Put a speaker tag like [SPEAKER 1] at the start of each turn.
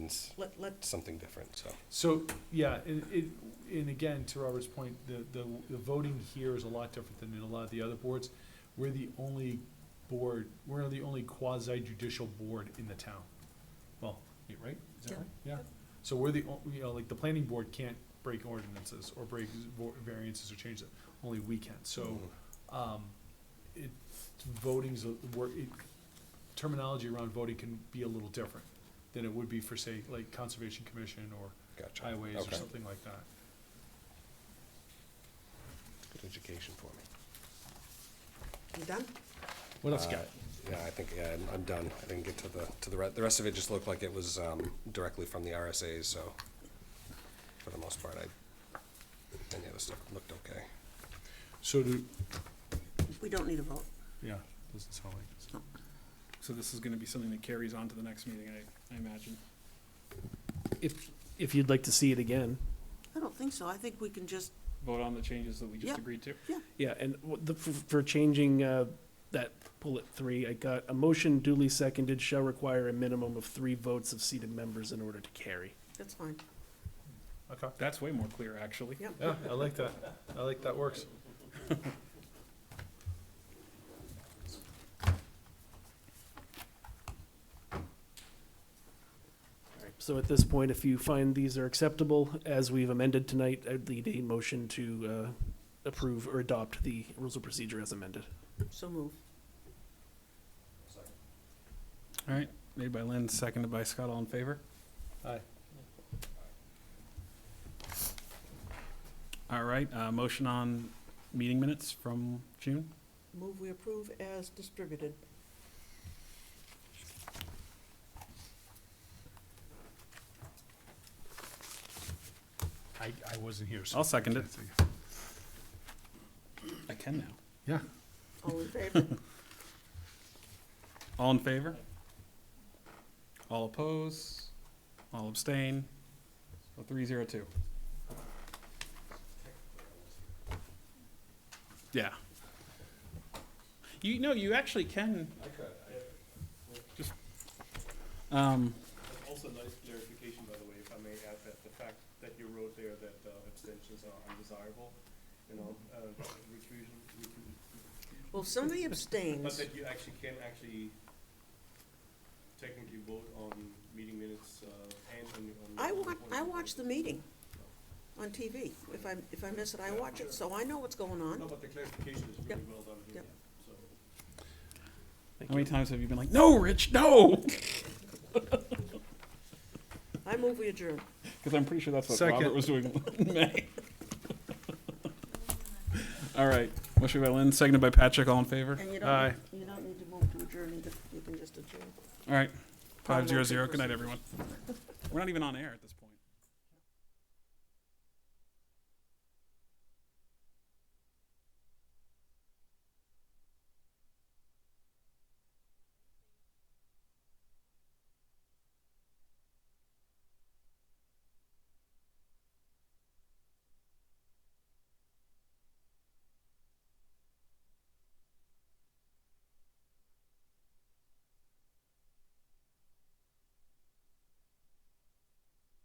[SPEAKER 1] means
[SPEAKER 2] Let, let,
[SPEAKER 1] something different, so.
[SPEAKER 3] So, yeah, and, it- and again, to Robert's point, the, the, the voting here is a lot different than in a lot of the other boards. We're the only board, we're the only quasi judicial board in the town. Well, yeah, right, is that
[SPEAKER 2] Yeah.
[SPEAKER 3] right? Yeah, so we're the, on- you know, like, the planning board can't break ordinances or break vo- variances or change it, only we can, so,
[SPEAKER 1] Hmm.
[SPEAKER 3] um, it, voting's, a- wor- it, terminology around voting can be a little different than it would be for, say, like, Conservation Commission or
[SPEAKER 1] Gotcha.
[SPEAKER 3] highways or
[SPEAKER 1] Okay.
[SPEAKER 3] something like that.
[SPEAKER 1] Good education for me.
[SPEAKER 2] you done?
[SPEAKER 3] What else you
[SPEAKER 1] Uh,
[SPEAKER 3] got?
[SPEAKER 1] Yeah, I think, yeah, I'm- I'm done. I didn't get to the, to the, re- the rest of it just looked like it was um, directly from the RSAs, so for the most part, I, any of the stuff looked okay.
[SPEAKER 3] So do,
[SPEAKER 2] We don't need a vote.
[SPEAKER 3] yeah, doesn't sound like it.
[SPEAKER 4] So this is gonna be something that carries on to the next meeting, I, I imagine.
[SPEAKER 5] If, if you'd like to see it again,
[SPEAKER 2] I don't think so. I think we can just,
[SPEAKER 4] Vote on the changes that we
[SPEAKER 2] Yeah.
[SPEAKER 4] just agreed to.
[SPEAKER 5] yeah, and what the, for- for changing, uh, that bullet three, I got, a motion duly seconded shall require a minimum of three votes of seated members in order to carry.
[SPEAKER 2] that's fine.
[SPEAKER 3] Okay.
[SPEAKER 4] That's way more clear, actually.
[SPEAKER 2] Yep.
[SPEAKER 3] Yeah, I like that. I like that works.
[SPEAKER 5] So at this point, if you find these are acceptable, as we've amended tonight, I'd need a motion to, uh, approve or adopt the rules of procedure as amended.
[SPEAKER 2] So move.
[SPEAKER 4] All right, made by Lynn, seconded by Scott, all in favor?
[SPEAKER 3] Aye.
[SPEAKER 4] All right, uh, motion on meeting minutes from June.
[SPEAKER 2] Move we approve as distributed.
[SPEAKER 3] I, I wasn't here, so.
[SPEAKER 4] I'll second it. I can now.
[SPEAKER 3] Yeah.
[SPEAKER 2] All in favor?
[SPEAKER 4] All in favor? All oppose? All abstain? So three zero two. Yeah. You know, you actually can. I could. Just, um,
[SPEAKER 6] Also, nice clarification, by the way, if I may add that the fact that you wrote there that uh, abstentions are undesirable, you know, uh, recrusion,
[SPEAKER 2] Well, if somebody
[SPEAKER 6] but
[SPEAKER 2] abstains,
[SPEAKER 6] that you actually can actually technically vote on meeting minutes uh, and on. on-
[SPEAKER 2] I
[SPEAKER 6] on
[SPEAKER 2] watch,
[SPEAKER 6] point
[SPEAKER 2] I
[SPEAKER 6] of
[SPEAKER 2] watch the
[SPEAKER 6] vote.
[SPEAKER 2] meeting on TV. If I, if I miss it, I watch it, so I know what's going
[SPEAKER 6] No,
[SPEAKER 2] on.
[SPEAKER 6] but the clarification is really well done here,
[SPEAKER 2] Yep.
[SPEAKER 6] so.
[SPEAKER 4] how many times have you been like, no, Rich, no?
[SPEAKER 2] I move we adjourn.
[SPEAKER 4] Because I'm pretty sure that's what
[SPEAKER 3] Second.
[SPEAKER 4] Robert was doing in May. All right, motion by Lynn, seconded by Patrick, all in favor?
[SPEAKER 2] And you
[SPEAKER 3] Aye.
[SPEAKER 2] don't, you don't need to move to adjourn either. You can just adjourn.
[SPEAKER 4] All right,
[SPEAKER 2] Five
[SPEAKER 4] five
[SPEAKER 2] zero
[SPEAKER 4] zero
[SPEAKER 2] two
[SPEAKER 4] zero. Good night,
[SPEAKER 2] percent.
[SPEAKER 4] everyone. We're not even on air at this point.